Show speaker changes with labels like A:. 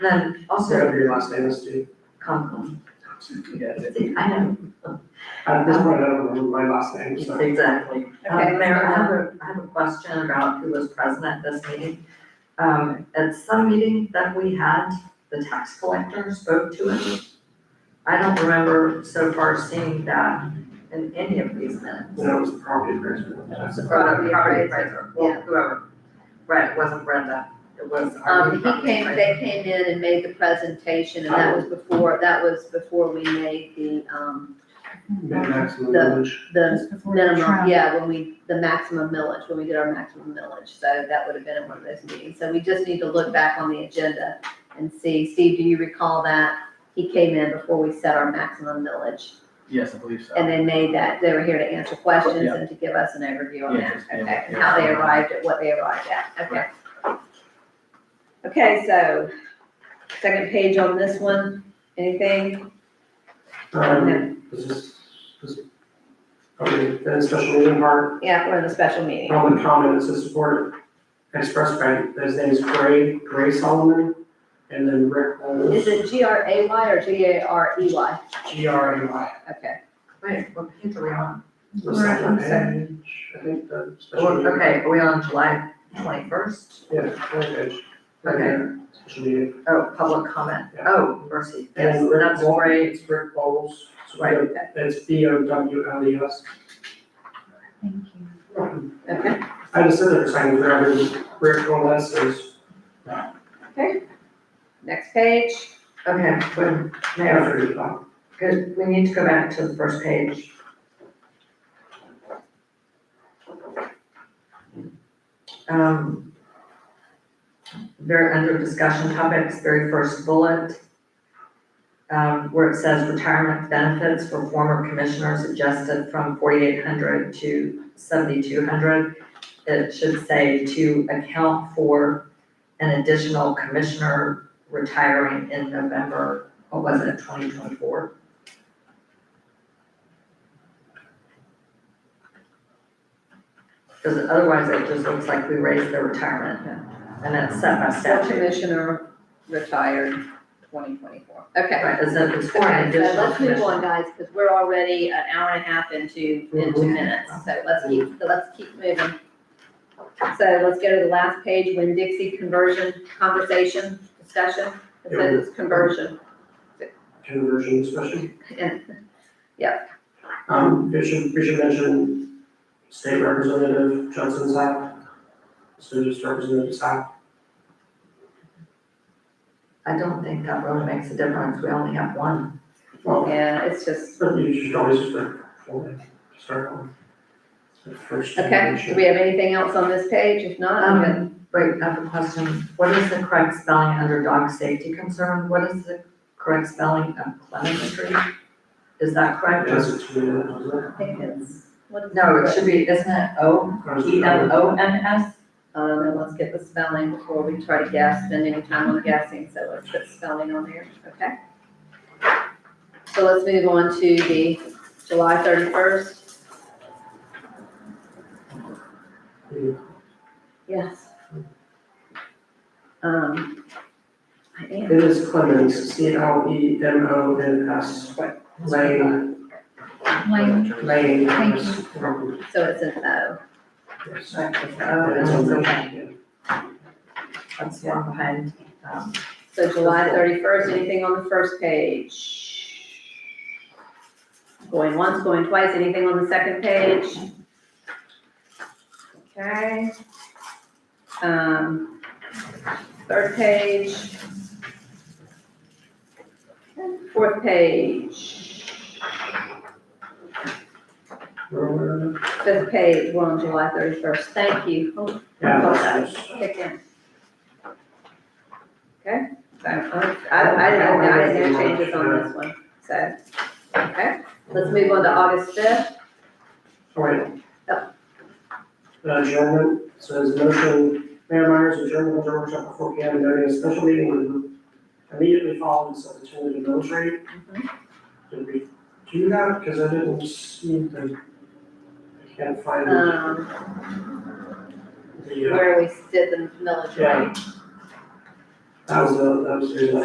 A: And then Um, also
B: Whatever your last name is, Steve.
A: Conklin,
B: Yeah, it-
A: I know,
B: At this point, I don't remember my last name, so.
A: exactly.
C: Okay.
A: Um, Mayor, I have a, I have a question about who was present at this meeting. Um, at some meeting that we had, the tax collector spoke to it. I don't remember so far seeing that in any of these minutes.
B: That was the property appraisal.
A: Or the
C: Property
A: property
C: appraiser,
A: appraiser, well, whoever. Right, it wasn't Brenda, it was our.
C: Um, he
A: property
C: came,
A: appraiser.
C: they came in and made the presentation, and that was
D: Oh.
C: before, that was before we made the, um,
B: Mid maximum
C: The-
B: village.
C: the
D: Just before the
C: minimum,
D: trial.
C: yeah, when we, the maximum millage, when we did our maximum millage, so that would have been in one of those meetings. So we just need to look back on the agenda and see, Steve, do you recall that? He came in before we set our maximum millage,
E: Yes, I believe so.
C: and they made that, they were here to answer questions
E: Yeah.
C: and to give us an overview on
E: Yeah,
C: that,
E: just, yeah,
C: okay, and
E: yeah.
C: how they arrived at what they arrived at, okay. Okay, so, second page on this one, anything?
B: Um, this is, this, okay, then special meeting part,
C: Yeah, we're in a special meeting.
B: Roman comment, it says support expressed by, his name is Gray, Gray Solomon, and then Rick
C: Is
B: Holmes,
C: it G R A Y or G A R E Y?
B: G R A Y.
C: Okay.
A: Wait, what page are we on?
B: The
D: Right,
B: second
D: I'm
B: page, I think the special meeting.
A: Oh, Okay, are we on July twenty-first?
B: Yeah, second page.
A: Okay.
B: Special meeting.
A: Oh, public comment,
B: Yeah.
A: oh, mercy, yes,
B: And Rick
A: that's
B: Wal-
A: great,
B: It's Rick Bowles.
A: Right.
B: It's B O W L E S.
D: Thank you.
C: Okay.
B: I just said that it's kind of grabbing Rick Wallace is
C: Next page.
A: okay, good, Mayor,
B: after the top.
A: good, we need to go back to the first page. Um. Very under discussion topics, very first bullet. Um, where it says retirement benefits for former commissioners adjusted from forty-eight hundred to seventy-two hundred. It should say to account for an additional commissioner retiring in November, what was it, twenty twenty-four? Because otherwise it just looks like we raised their retirement and it's set by
C: Full
A: statute.
C: commissioner retired twenty twenty-four. Okay.
A: Right, it's a, it's for an
C: Okay, so
A: additional
C: let's move
A: commission.
C: on, guys, because we're already an hour and a half into, into
B: Mhm.
C: minutes, so let's keep, so let's keep moving. So let's go to the last page, When Dixie conversion, conversation, discussion, it says it's conversion.
B: Conversion especially.
C: And
B: Um, we should, we should mention State Representative Johnson Sapp. So just Representative Sapp.
A: I don't think that really makes a difference, we only have one.
B: Well,
C: Yeah, it's just,
B: but you should always just like, hold it, start on. the First.
C: okay, do we have anything else on this page? If not, I'm good.
A: Um, wait, I have a question, what is the correct spelling under dog safety concern, what is the correct spelling of clemency? Is that correct?
B: Yes, it's really, uh,
C: I think it's, what is
A: No, it should be, isn't it O, E M O N S?
C: Um, and let's get the spelling before we try to guess, spend any time on guessing, so let's put spelling on there, okay? So let's move on to the July thirty-first. Yes. Um, I
B: It
C: am,
B: is Clemens, C L E M O N S. Lane,
D: Lane,
B: Lane. Um,
D: Thank
B: yes,
C: so it's an O.
B: yes.
A: Right, it's O, and
B: Yeah, it's on
A: it's
B: the-
A: okay,
B: yeah.
A: that's the one behind, um,
C: So July thirty-first, anything on the first page? Going once, going twice, anything on the second page? Okay. Um, third page. Fourth page, fifth page, we're on July thirty-first, thank you. Oh,
B: Yeah,
C: Hold
B: that's- that's-
C: that, kick in. Okay, so um, I, I didn't, I didn't know changes on this one, so, okay, let's move on to August fifth.
B: Alright.
C: Yep.
B: Uh, Adjournment, says motion, Mayor Myers, adjournment of workshop at four P M, noting a special meeting would immediately follow this opportunity to military. Did we do that? Cause I didn't see the, I can't find the,
C: Um,
B: the, uh,
C: where we did the military.
B: Yeah. That was, the- that was the